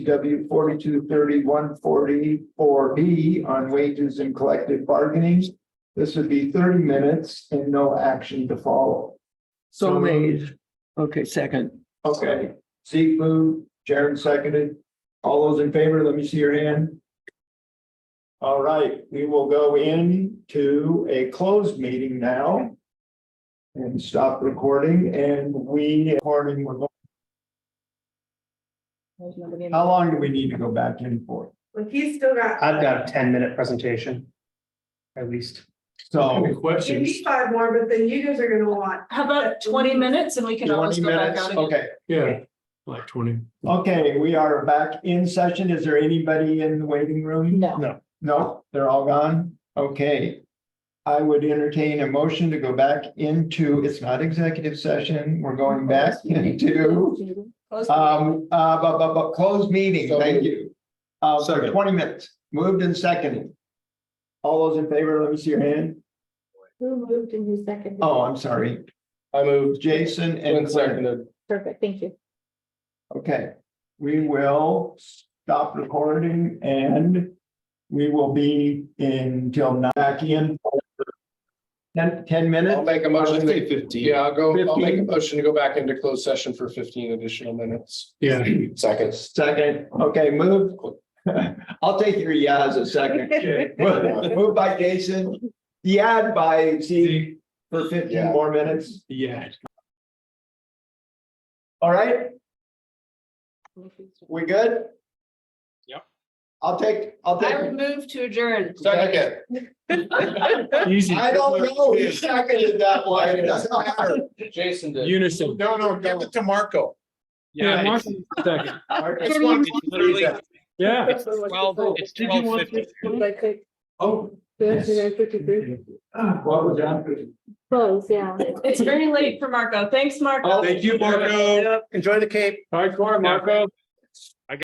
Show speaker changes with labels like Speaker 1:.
Speaker 1: CW forty-two thirty-one forty-four B on wages and collective bargaining. This would be thirty minutes and no action to follow.
Speaker 2: So made. Okay, second.
Speaker 1: Okay, Zeke moved, Jared seconded. All those in favor, let me see your hand. All right, we will go into a closed meeting now. And stop recording and we, recording, we're going-
Speaker 3: There's nobody in-
Speaker 1: how long do we need to go back in for?
Speaker 4: Well, he's still got,
Speaker 5: I've got a ten minute presentation. At least.
Speaker 1: So
Speaker 4: you need five more, but then you guys are gonna want,
Speaker 3: How about twenty minutes and we can always
Speaker 1: twenty
Speaker 3: go back
Speaker 1: minutes,
Speaker 3: out again?
Speaker 1: okay,
Speaker 2: Yeah, like twenty.
Speaker 1: okay, we are back in session. Is there anybody in the waiting room?
Speaker 3: No,
Speaker 1: No, they're all gone? Okay. I would entertain a motion to go back into, it's not executive session, we're going back into
Speaker 3: Close the meeting.
Speaker 1: um, uh, but, but, but closed meeting, thank you. Uh, for
Speaker 2: Second.
Speaker 1: twenty minutes, moved and seconded. All those in favor, let me see your hand.
Speaker 6: Who moved and who seconded?
Speaker 1: Oh, I'm sorry,
Speaker 5: I moved.
Speaker 1: Jason and Claire.
Speaker 6: Perfect, thank you.
Speaker 1: Okay, we will stop recording and we will be until nine, back in. Ten, ten
Speaker 7: I'll
Speaker 1: minutes?
Speaker 7: make a motion. to-
Speaker 2: fifteen.
Speaker 7: Yeah, I'll go, I'll make a
Speaker 1: 15.
Speaker 7: motion to go back into closed session for fifteen additional minutes,
Speaker 2: Yeah.
Speaker 7: seconds.
Speaker 1: Second, okay, move. I'll take your yeah as a second. Move by Jason, yeah by Z for fifteen
Speaker 7: Yeah.
Speaker 1: more minutes.
Speaker 2: Yeah.
Speaker 1: All right, we good?
Speaker 7: Yep.
Speaker 1: I'll take, I'll take.
Speaker 3: I would move to adjourn.
Speaker 7: Second.
Speaker 2: Easy.
Speaker 1: I don't know, he seconded that one, it doesn't matter.
Speaker 7: Jason
Speaker 2: Unison.
Speaker 7: No, no, give it to Marco.
Speaker 2: Yeah. Martin, second.
Speaker 1: Marcus
Speaker 3: Thirty
Speaker 1: wants
Speaker 3: minutes.
Speaker 1: to do that.
Speaker 2: Yeah.
Speaker 8: Twelve, it's
Speaker 2: Did you
Speaker 8: twelve
Speaker 2: want
Speaker 8: fifty.
Speaker 1: Oh.
Speaker 6: Close,
Speaker 1: What was that?
Speaker 6: yeah.
Speaker 3: It's very late for Marco. Thanks, Marco.
Speaker 1: Thank you,
Speaker 2: Marco.
Speaker 5: Enjoy the Cape.
Speaker 2: Hardcore, Marco.